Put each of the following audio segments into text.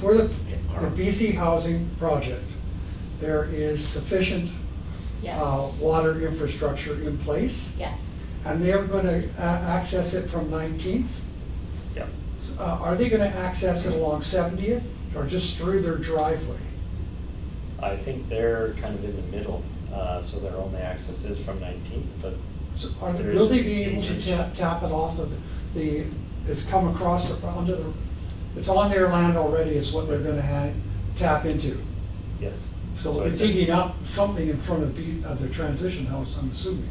for the, the BC housing project, there is sufficient Yes. uh, water infrastructure in place, Yes. and they're gonna a- access it from 19th. Yep. Uh, Are they gonna access it along 70th, or just through their driveway? I think they're kind of in the middle, uh, so their only access is from 19th, but So Are, they- There will is they be able to acreage. tap, tap it off of the, it's come across, the- under the, it's on their land already is what they're gonna ha tap into? yes. So they're it's a- digging up something in front of the, of the transition house, I'm assuming,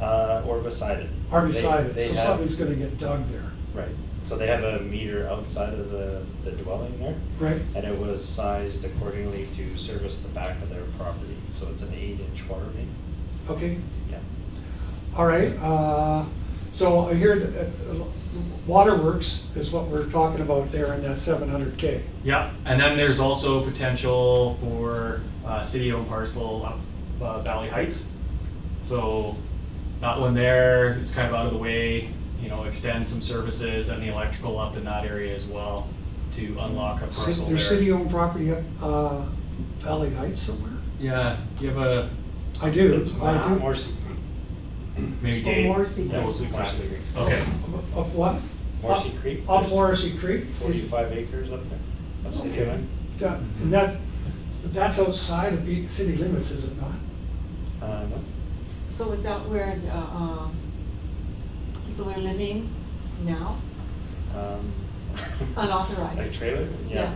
Uh, or beside it. or They- beside they it, so have- something's gonna get dug there, Right, so they have a meter outside of the, the dwelling there, right? and it was sized accordingly to service the back of their property, so it's an eight-inch water main, Okay, yeah. all right, uh, so I hear that, uh, Waterworks is what we're talking about there in that seven hundred K. Yeah, and then there's also potential for uh, city-owned parcel up uh, Valley Heights. So that one there, it's kind of out of the way, you know, extend some services and the electrical up in that area as well to unlock a parcel there. Their city-owned property up, uh, Valley Heights somewhere? Yeah, do you have a, I do, It's I do. Morrissey. maybe Oh, Dave? Morrissey. knows Yeah, exactly. Morrissey. Okay, Up- Up what? Morrissey Up- Creek. Up There's Morrissey Creek? is- Forty-five acres up there of city Okay. land. Yeah, And that, that's outside of the city limits, is it not? Uh, no, So is that where, the, um, people are living now? um. Unauthorized. Like trailer, yeah.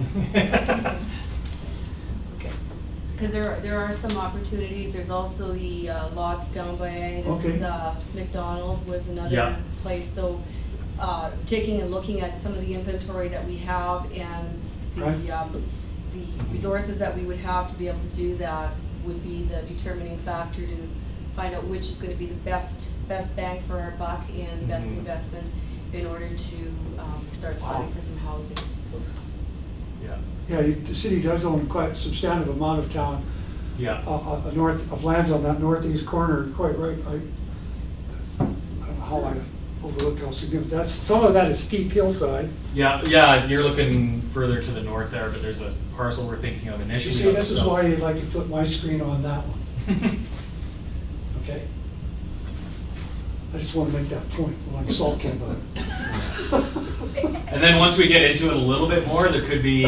Okay. Because there, are- there are some opportunities, there's also the uh, lots down by Angus Okay. uh, McDonald was Yeah. another place, so uh, taking and looking at some of the inventory that we have and Right. the, um, the resources that we would have to be able to do that would be the determining factor to find out which is gonna be the best, best bang for our buck and best Mhm. investment in order to um, start planning for some housing. yeah, Yeah, you- the city does own quite a substantive amount of town, uh, yeah. uh, uh, north of lands on that northeast corner, quite right, I, I don't know how I overlooked how significant, that's, some of that is steep hillside. Yeah, yeah, you're looking further to the north there, but there's a parcel we're thinking of You initially. see, on the this is south. why you'd like to put my screen on that one, okay? I just wanna make that point when I'm sulking about it. And then once we get into it a little bit more, there could be,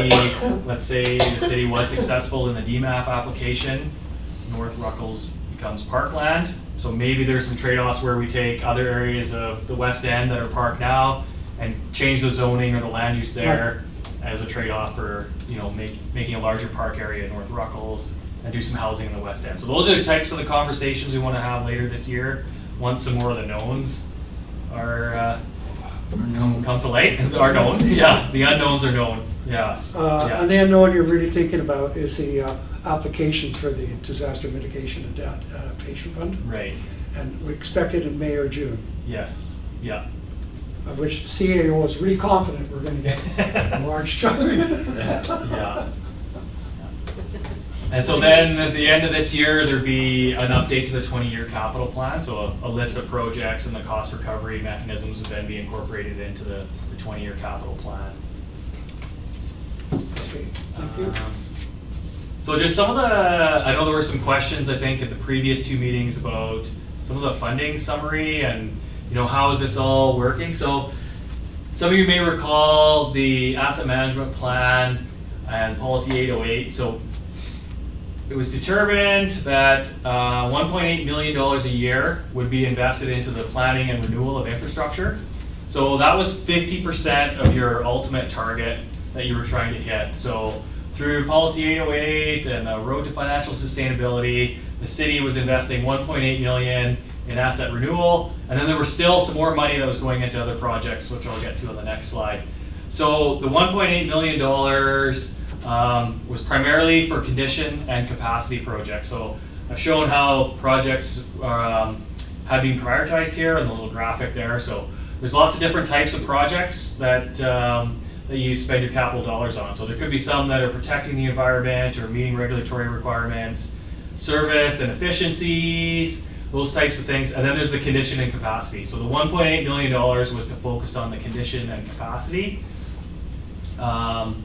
let's say the city was successful in the DMAP application, North Ruckles becomes parkland. So maybe there's some trade-offs where we take other areas of the west end that are park now and change the zoning or the land use there as a trade-off for, you know, make, making a larger park area in North Ruckles and do some housing in the west end. So those are the types of the conversations we want to have later this year, once some more of the knowns are, uh, Come, come to light are known. Yeah, the unknowns are known. Yeah. Uh, yeah. And the unknown you're really thinking about is the uh, applications for the disaster mitigation and Adapt- adaptation fund. right. And we expect it in May or June, Yes. Yeah. of which the CAO is really confident we're going to get a large chunk. Yeah. And so then at the end of this year, there'd be an update to the 20-year capital plan. So a, a list of projects and the cost recovery mechanisms would then be incorporated into the, the 20-year capital plan. Okay, Thank you. Um, So just some of the, I know there were some questions, I think, at the previous two meetings about some of the funding summary and, you know, how is this all working? So some of you may recall the asset management plan and policy 808. So it was determined that uh, $1.8 million a year would be invested into the planning and renewal of infrastructure. So that was 50% of your ultimate target that you were trying to hit. So through Policy 808 and the Road to Financial Sustainability, the city was investing 1.8 million in asset renewal, and then there was still some more money that was going into other projects, which I'll get to on the next slide. So the 1.8 million dollars um, was primarily for condition and capacity projects. So I've shown how projects are, um, have been prioritized here and the little graphic there. So there's lots of different types of projects that, um, that you spend your capital dollars on. So there could be some that are protecting the environment or meeting regulatory requirements, service and efficiencies, those types of things. And then there's the condition and capacity. So the 1.8 million dollars was to focus on the condition and capacity. Um,